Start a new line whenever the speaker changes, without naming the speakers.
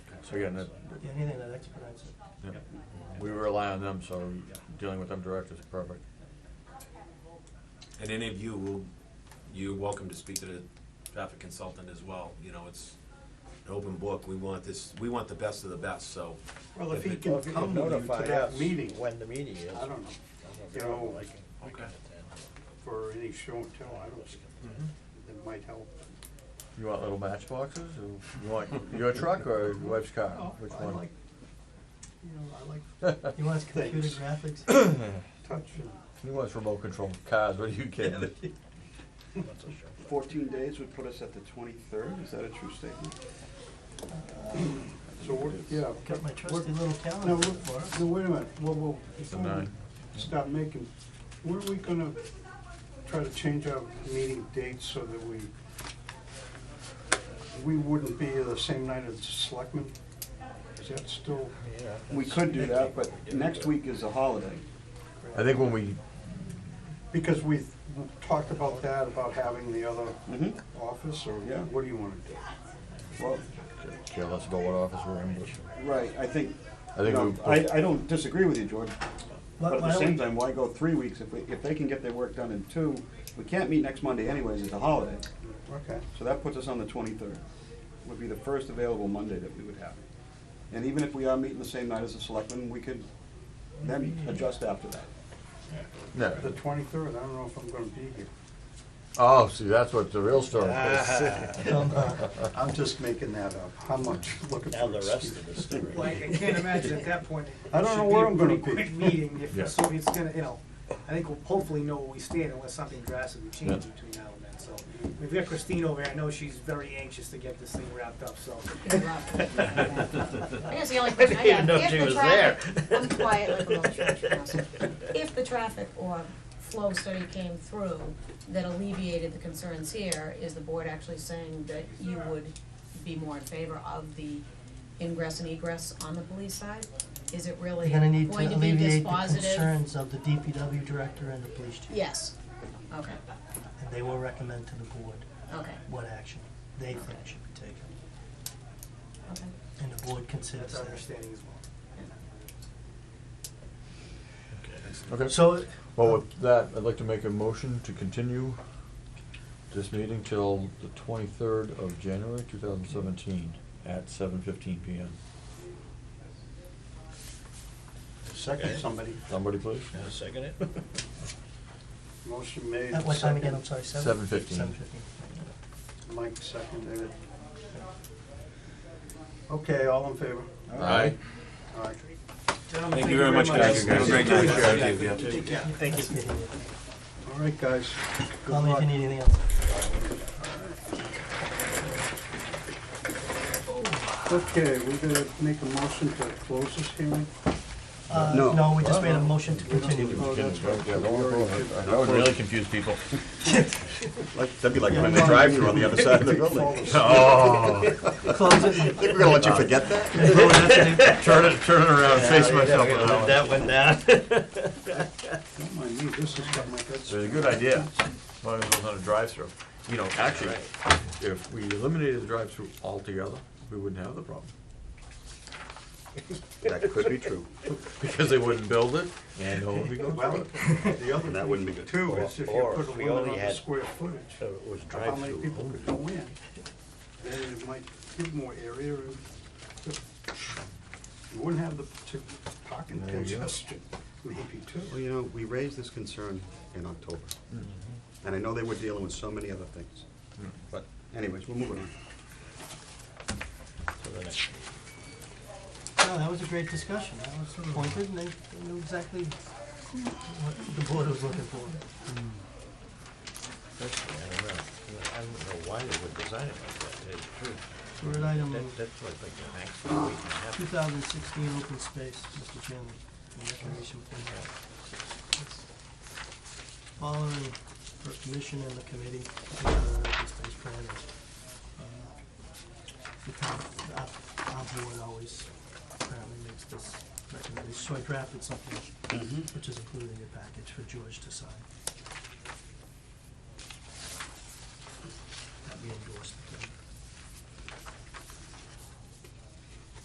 Again, that-
Anything that expedites it.
yeah. we rely on them, so dealing with them direct is perfect.
And any of you will, you're welcome to speak to the traffic consultant as well, you know, it's an open book, we want this, we want the best of the best, so.
Well, if
If
he
it-
can come with you to that meeting,
When the meeting is.
I don't know, you know,
Okay.
for any show and tell, I don't, that might help.
You want little matchboxes, or you want your truck or your wife's car?
Oh,
Which
I
one?
like, you know, I like
He wants computer
Thanks.
graphics.
touch and.
He wants remote control cars, what are you kidding?
Fourteen days would put us at the twenty-third, is that a true statement?
So we're, yeah.
Got my
we're-
trusty little
No,
calendar for
we're-
us.
no, wait a minute, whoa, whoa,
a
before we
nine.
stop making, were we gonna try to change our meeting dates so that we, we wouldn't be the same night as the selectmen? Is that still,
We could do that, but next week is a holiday.
I think when we,
because we talked about that, about having the other
Mm-hmm.
office, or
Yeah.
what do you wanna do?
Well,
care less about what office we're in,
right, I think,
I
you
think
know,
we-
I, I don't disagree with you, George, but
Why-
at
why
the
don't
same
we-
time, why go three weeks if, we- if they can get their work done in two? We can't meet next Monday anyways, it's a holiday,
Okay,
so that puts us on the twenty-third. Would be the first available Monday that we would have. And even if we are meeting the same night as the selectmen, we could then adjust after that.
no.
the twenty-third, I don't know if I'm gonna be here.
Oh, see, that's what the real story is.
I'm just making that up, how much, looking
Now
for
the rest of
excuses.
the story.
Like, I can't imagine at that point. it
I don't
should
know where
a
I'm gonna
pretty
be.
Quick meeting,
Yeah.
if, so it's gonna, you know, I think we'll hopefully know where we stand unless something drastically changes
Yeah.
between now and then, so. We've got Christine over here, I know she's very anxious to get this thing wrapped up, so.
Here's the only question I
even
have.
know
If
she
the
was
traffic- I'm quiet like a little church mouse. If the traffic or flow study came through that alleviated the concerns here, is the board actually saying that you would be more in favor of the ingress and egress on the police side? Is it really
You're gonna
going
need to
to be this
alleviate the
positive?
concerns of the DPW director and the police chief.
Yes, okay,
And they will recommend to the board
okay,
what action they think should be taken.
okay.
And the board considers
That's our
that.
understanding as well.
Okay,
So,
well, with that, I'd like to make a motion to continue this meeting till the twenty-third of January, two thousand seventeen, at seven fifteen PM.
Second, somebody,
Somebody please?
Now second it?
motion made.
at what time again, I'm
second.
sorry, seven?
7:15.
Seven fifteen.
Mike seconded it. Okay, all in favor?
Aye.
All right.
Gentlemen,
Thank you very much, guys.
Thank you, guys.
Have a great night.
Thank you.
Yeah.
Thank you.
All right, guys. Good
Call me if
luck.
you need anything else.
Okay, we're gonna make a motion to close this hearing.
Uh,
No.
no, we just made a motion to continue.
Oh, that's right.
Yeah, don't worry about it. That would really confuse people.
That'd be like
when they drive through on the other side of the building.
Oh,
Close it.
We're gonna let you forget that?
turn it, turn it around, face myself. with that one.
That went down.
Don't mind me, this has got my guts.
So it's a good idea, as long as it's not a drive-through. You know, actually, if we eliminated the drive-through altogether, we wouldn't have the problem.
That could be true.
Because they wouldn't build it, and no one would be going
Well,
through
the other
That wouldn't be good.
too is if you
Or-
put a
or we
limit
only
on the
had-
square footage,
It was
of how many
drive-through.
people could go in, then it might give more area and you wouldn't have the partic- parking
There you go.
congestion, maybe
Well,
too.
you know, we raised this concern in October, and I know they were dealing with so many other things. But anyways, we're moving on.
To the next.
No, that was a great discussion. I was pointed and they knew exactly what the board was looking for.
Personally, I don't know. I don't know why they would design it like that, to tell you the truth.
Third item,
That, that's like the maximum we can
two
have.
thousand sixteen open space, Mr. Chairman, and recreation plan. Following for commission and the committee, uh, open space plan is, uh, the town, our, our board always apparently makes this recommendation. So I drafted something, which is included in your package for George to sign.